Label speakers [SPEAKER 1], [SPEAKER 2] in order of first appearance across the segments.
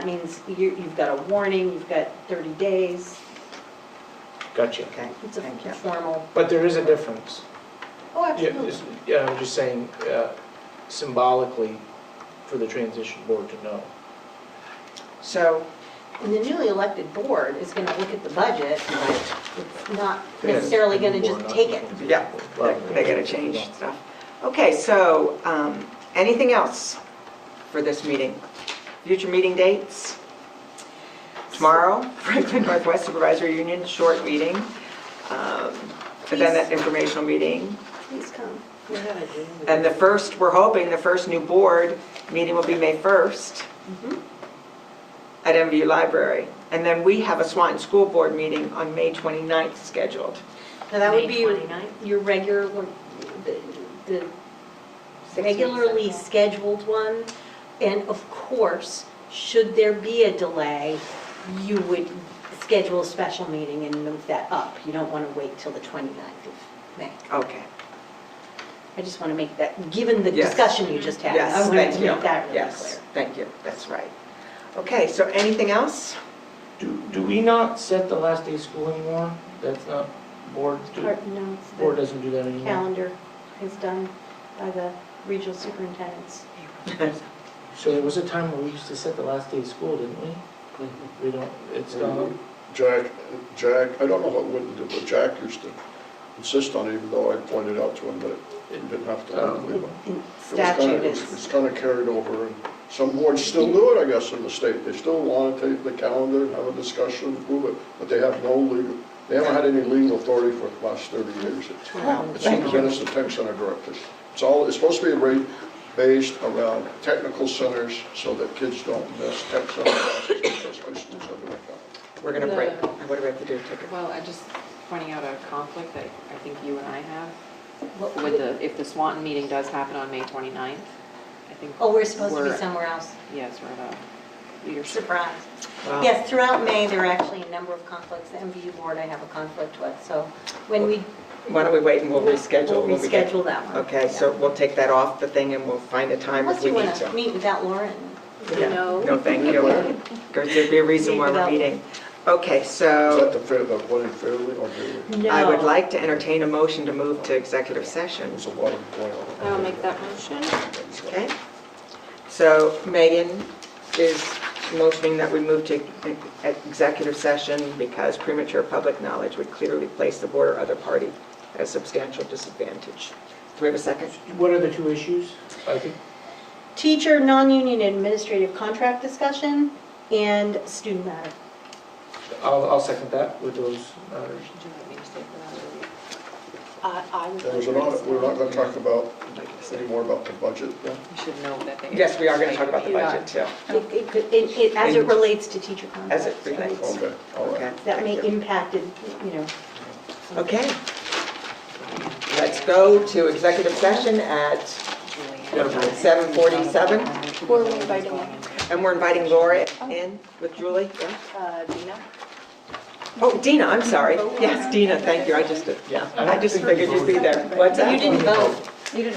[SPEAKER 1] That means you, you've got a warning, you've got 30 days.
[SPEAKER 2] Gotcha.
[SPEAKER 3] Okay,
[SPEAKER 1] It's a
[SPEAKER 3] thank you.
[SPEAKER 1] formal.
[SPEAKER 2] But there is a difference.
[SPEAKER 1] Oh,
[SPEAKER 2] Yeah, it's- Yeah, I'm just saying uh, symbolically for the transition board to know.
[SPEAKER 3] So,
[SPEAKER 1] And the newly elected board is going to look at the budget.
[SPEAKER 3] right,
[SPEAKER 1] It's not necessarily going to just take it.
[SPEAKER 3] yeah, they're- they gotta change stuff. Okay, so, um, anything else for this meeting? Future meeting dates? Tomorrow, Franklin Northwest Supervisory Union, short meeting. um, And then that informational meeting.
[SPEAKER 1] Please come.
[SPEAKER 3] And the first, we're hoping, the first new board meeting will be May 1st
[SPEAKER 1] Mhm.
[SPEAKER 3] at MVU Library. And then we have a Swanton School Board meeting on May 29th scheduled.
[SPEAKER 1] Now, that would
[SPEAKER 4] May
[SPEAKER 1] be your-
[SPEAKER 4] 29th?
[SPEAKER 1] your regular, one- the- the regularly scheduled one. And of course, should there be a delay, you would schedule a special meeting and move that up. You don't want to wait till the 29th of May.
[SPEAKER 3] Okay.
[SPEAKER 1] I just want to make that, given the
[SPEAKER 3] Yes.
[SPEAKER 1] discussion you just had, I
[SPEAKER 3] Yes,
[SPEAKER 1] wanted
[SPEAKER 3] thank
[SPEAKER 1] to
[SPEAKER 3] you.
[SPEAKER 1] make that really
[SPEAKER 3] Yes,
[SPEAKER 1] clear.
[SPEAKER 3] thank you, that's right. Okay, so anything else?
[SPEAKER 2] Do, do we not set the last day of school anymore? That's not, board, do-
[SPEAKER 1] Part notes,
[SPEAKER 2] board
[SPEAKER 1] the
[SPEAKER 2] doesn't do that anymore.
[SPEAKER 1] calendar is done by the regional superintendents.
[SPEAKER 3] Um,
[SPEAKER 2] So there was a time where we used to set the last day of school, didn't we? We don't, it's gone.
[SPEAKER 5] Jack, Jack, I don't know what Whitten did, but Jack used to insist on it, even though I pointed out to him that he didn't have to.
[SPEAKER 2] Oh.
[SPEAKER 5] legally, but
[SPEAKER 1] And
[SPEAKER 5] it was kinda-
[SPEAKER 1] Statute
[SPEAKER 5] it's-
[SPEAKER 1] is,
[SPEAKER 5] It's kind of carried over, and some boards still do it, I guess, in the state. They still want to take the calendar, have a discussion, approve it, but they have no legal, they haven't had any legal authority for the last 30 years.
[SPEAKER 1] Wow,
[SPEAKER 5] It's in
[SPEAKER 3] thank
[SPEAKER 5] the
[SPEAKER 3] you.
[SPEAKER 5] Venice Tech Center directive. It's all, it's supposed to be rate based around technical centers so that kids don't miss tech center classes, because high schools have it like that.
[SPEAKER 3] We're gonna
[SPEAKER 6] The-
[SPEAKER 3] break, what do we have to do, take it?
[SPEAKER 6] Well, I just pointing out a conflict that I think you and I have
[SPEAKER 1] What-
[SPEAKER 6] with the, if the Swanton meeting does happen on May 29th, I think.
[SPEAKER 1] oh, we're supposed to be somewhere else.
[SPEAKER 6] Yes, we're at a leadership.
[SPEAKER 1] Surprise.
[SPEAKER 3] Wow.
[SPEAKER 1] Yes, throughout May, there are actually a number of conflicts. The MVU board I have a conflict with, so when we.
[SPEAKER 3] Why don't we wait and we'll reschedule?
[SPEAKER 1] We'll
[SPEAKER 3] when we get-
[SPEAKER 1] reschedule that one.
[SPEAKER 3] Okay, so we'll take that off the thing and we'll find a time
[SPEAKER 1] Unless
[SPEAKER 3] if we
[SPEAKER 1] you
[SPEAKER 3] need
[SPEAKER 1] want to
[SPEAKER 3] to.
[SPEAKER 1] meet without Lauren.
[SPEAKER 3] Yeah. No, thank you. Because there'd be a reason why we're meeting. Okay,
[SPEAKER 5] Is that
[SPEAKER 3] so
[SPEAKER 5] the fair, the one in Fairleigh or Fairleigh?
[SPEAKER 3] I would like to entertain a motion to move to executive session.
[SPEAKER 5] There's a lot of going on.
[SPEAKER 6] I'll make that motion.
[SPEAKER 3] Okay. So Megan is motioning that we move to executive session because premature public knowledge would clearly place the board or other party at a substantial disadvantage. Do we have a second?
[SPEAKER 2] What are the two issues? I think
[SPEAKER 1] Teacher, non-union administrative contract discussion, and student matter.
[SPEAKER 2] I'll, I'll second that with those uh, matters.
[SPEAKER 6] Should you let me just take that out?
[SPEAKER 5] There was an audit, we're not gonna talk about, anymore about the budget then?
[SPEAKER 6] We should know that they.
[SPEAKER 3] Yes, we are going to talk about the
[SPEAKER 6] Yeah.
[SPEAKER 3] budget too,
[SPEAKER 1] It- It, could- it, it, as it
[SPEAKER 3] And-
[SPEAKER 1] relates to teacher contracts.
[SPEAKER 3] as it relates.
[SPEAKER 5] Okay, all
[SPEAKER 3] Okay,
[SPEAKER 5] right.
[SPEAKER 1] That may
[SPEAKER 3] thank you.
[SPEAKER 1] impact it, you know.
[SPEAKER 3] Okay. Let's go to executive session at,
[SPEAKER 2] Jennifer.
[SPEAKER 3] 7:47.
[SPEAKER 6] Or
[SPEAKER 7] we inviting
[SPEAKER 3] and we're inviting Laura in with Julie, yeah?
[SPEAKER 7] Oh. Uh, Dina?
[SPEAKER 3] Oh, Dina, I'm sorry. Yes, Dina, thank you, I just, yeah, I just figured you'd be there. What's that?
[SPEAKER 1] You didn't vote.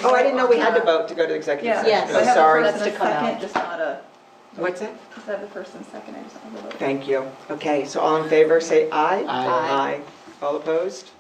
[SPEAKER 3] Oh, I didn't know we had to vote to go to executive
[SPEAKER 7] Yeah.
[SPEAKER 3] session.
[SPEAKER 1] Yes.
[SPEAKER 3] I'm
[SPEAKER 7] I have a
[SPEAKER 3] sorry.
[SPEAKER 7] first and a
[SPEAKER 1] To come out.
[SPEAKER 7] second, Just not a,
[SPEAKER 3] What's that?
[SPEAKER 7] is that the first and second? I just don't have a vote.
[SPEAKER 3] Thank you. Okay, so all in favor, say aye.
[SPEAKER 2] Aye.
[SPEAKER 3] Aye. All opposed?